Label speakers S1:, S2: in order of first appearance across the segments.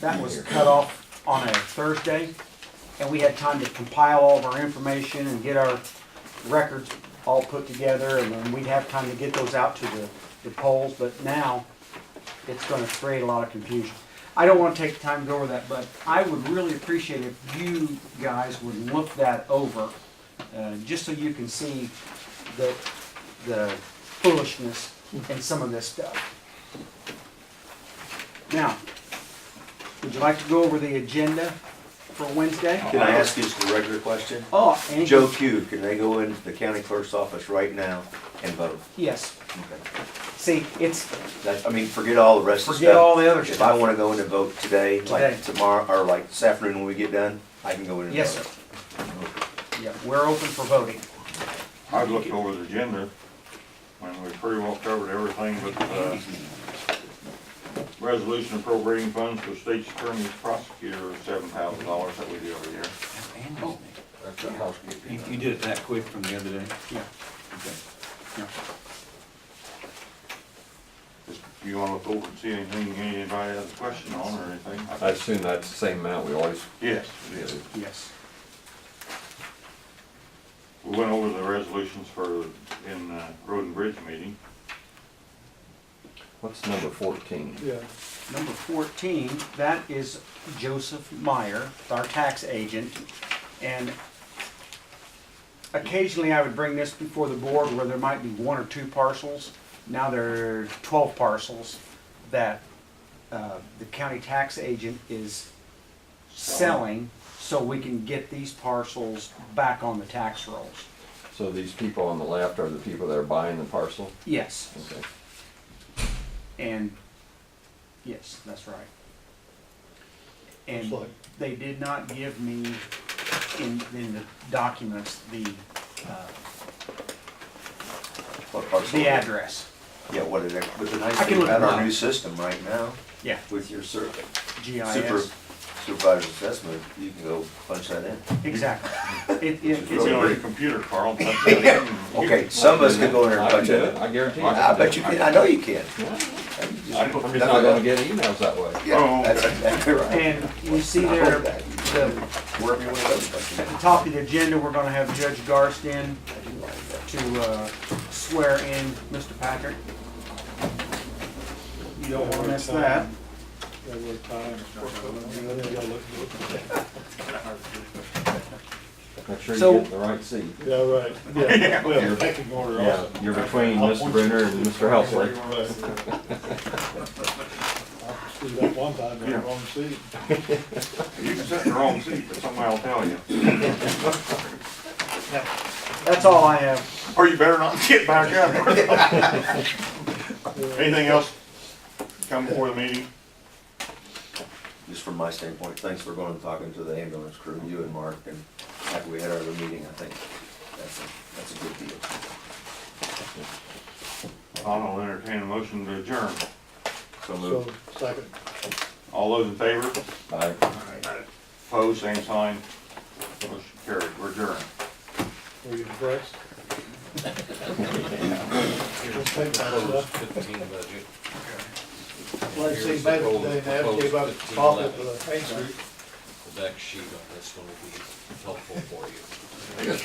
S1: That was cut off on a Thursday, and we had time to compile all of our information and get our records all put together, and then we'd have time to get those out to the, the polls, but now it's gonna create a lot of confusion. I don't wanna take the time to go over that, but I would really appreciate if you guys would look that over, uh, just so you can see the, the foolishness in some of this stuff. Now, would you like to go over the agenda for Wednesday?
S2: Can I ask you just a regular question?
S1: Uh, Oh, any-
S2: Joe Q, can they go into the county clerk's office right now and vote?
S1: Yes. See, it's,
S2: That's, I mean, forget all the rest of the stuff.
S1: forget all the other
S2: If I
S1: stuff.
S2: wanna go in and vote today,
S1: Today.
S2: like tomorrow, or like this afternoon when we get done, I can go in and vote.
S1: Yes, sir. Yeah, we're open for voting.
S3: I looked over the agenda, and we pretty well covered everything but, uh, resolution appropriating funds for state's attorney's prosecutor, seven thousand dollars that we do every year.
S4: You you did it that quick from the other day?
S1: Yeah.
S4: Okay.
S3: Just, if you wanna look over and see anything, anybody has a question on or anything?
S5: I assume that's the same amount we always
S3: Yes, it
S5: did.
S3: is.
S1: Yes.
S3: We went over the resolutions for, in, uh, road and bridge meeting.
S5: What's number fourteen?
S6: Yeah,
S1: Number 14, that is Joseph Meyer, our tax agent. And occasionally I would bring this before the board where there might be one or two parcels. Now there are 12 parcels that uh, the county tax agent is selling so we can get these parcels back on the tax rolls.
S5: So these people on the left are the people that are buying the parcel?
S1: Yes,
S5: Okay.
S1: and, yes, that's right.
S6: it's
S1: And
S6: like,
S1: they did not give me in, in the documents the, uh,
S2: What parcel?
S1: the address.
S2: Yeah, what is it? But the nice
S1: I can
S2: thing
S1: look
S2: about
S1: it up.
S2: our new system right now,
S1: Yeah,
S2: with your sur- super
S1: GIS.
S2: supervisor assessment, you can go punch that in.
S1: Exactly. It, it,
S3: We don't need a
S1: it's,
S3: computer, Carl. That's it.
S2: Okay, some of us could go in there and
S5: I can
S2: punch
S5: do
S2: it in.
S5: I guarantee you.
S2: I bet you can, I know you can.
S5: I'm just not gonna get emails that way.
S2: Yeah, that's exactly right.
S1: and you see
S2: I
S1: there,
S2: hope
S1: the,
S2: that, wherever you wanna go, punch
S1: at
S2: it
S1: the top of the agenda, we're gonna have Judge Garstin
S2: in. I do like that.
S1: to, uh, swear in Mr. Patrick. You don't wanna miss that.
S6: that were times.
S5: Make sure
S1: So-
S5: you get the right seat.
S6: Yeah, right, yeah, well, pecking order
S5: Yeah,
S6: also.
S5: you're between
S6: I'll
S5: Mr.
S6: point
S5: Brenner
S6: you-
S5: and Mr. Helsley.
S6: Right. I stood up one time, in the wrong seat.
S3: You can sit in the wrong seat, but somebody will tell you.
S1: That's all I have.
S3: Or you better not get back up. Anything else come before the meeting?
S2: just from my standpoint, thanks for going and talking to the ambulance crew, you and Mark, and after we had our other meeting, I think that's a, that's a good deal.
S3: I'll entertain a motion to adjourn.
S2: So
S6: So,
S2: moved.
S6: second.
S3: All those in favor?
S5: Bye.
S3: Opposed, same sign. Motion carried, we're adjourned.
S6: Were you impressed? Just take that stuff.
S7: fifteen budget.
S6: Like, see, back today, they have to give up
S7: Proposed
S6: profit
S7: 15,
S6: for the paint street.
S7: The back sheet on this one will be helpful for you.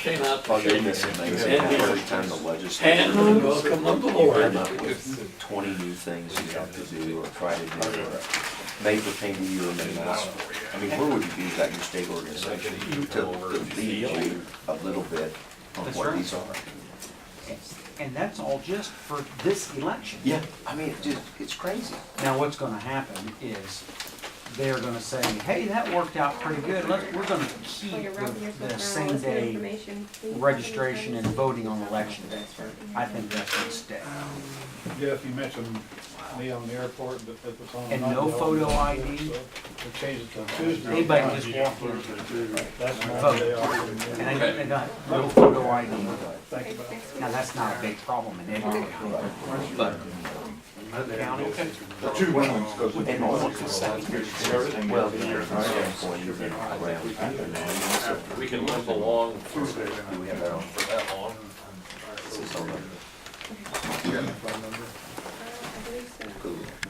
S2: Forgiveness and things, every time the legislature
S7: welcome of the
S2: come up with twenty new things you have to do or try to do, or may pertain to you or may not. I mean, where would you be without your state organization to, to lead you a little bit on
S1: That's
S2: what
S1: right.
S2: these are?
S1: And that's all just for this election.
S2: Yeah, I mean, it just, it's crazy.
S1: Now, what's gonna happen is they're gonna say, hey, that worked out pretty good, let's, we're gonna keep
S8: Well, you're right,
S1: the,
S8: here's
S1: the
S8: what's there, all
S1: same
S8: this new
S1: day
S8: information.
S1: registration and voting on election day. I think that's gonna stay.
S6: Jeff, you mentioned me on the airport, but it was on.
S1: And
S6: my
S1: no
S6: bill,
S1: photo
S6: so
S1: ID?
S6: We changed it to Tuesday.
S1: Anybody can just walk in,
S6: That's my
S1: Vote.
S6: day off.
S1: and I, they got no photo ID.
S6: Think about it.
S1: Now, that's not a big problem in every county, but other counties,
S3: The two women, because we
S2: And all of this stuff here,
S3: everything.
S2: well,
S3: gets
S2: you're
S3: here.
S2: from standpoint, you've been around.
S7: We can limp along for
S2: Do we have that on?
S7: for that long.
S2: This is on the-
S8: I believe so.
S2: Cool.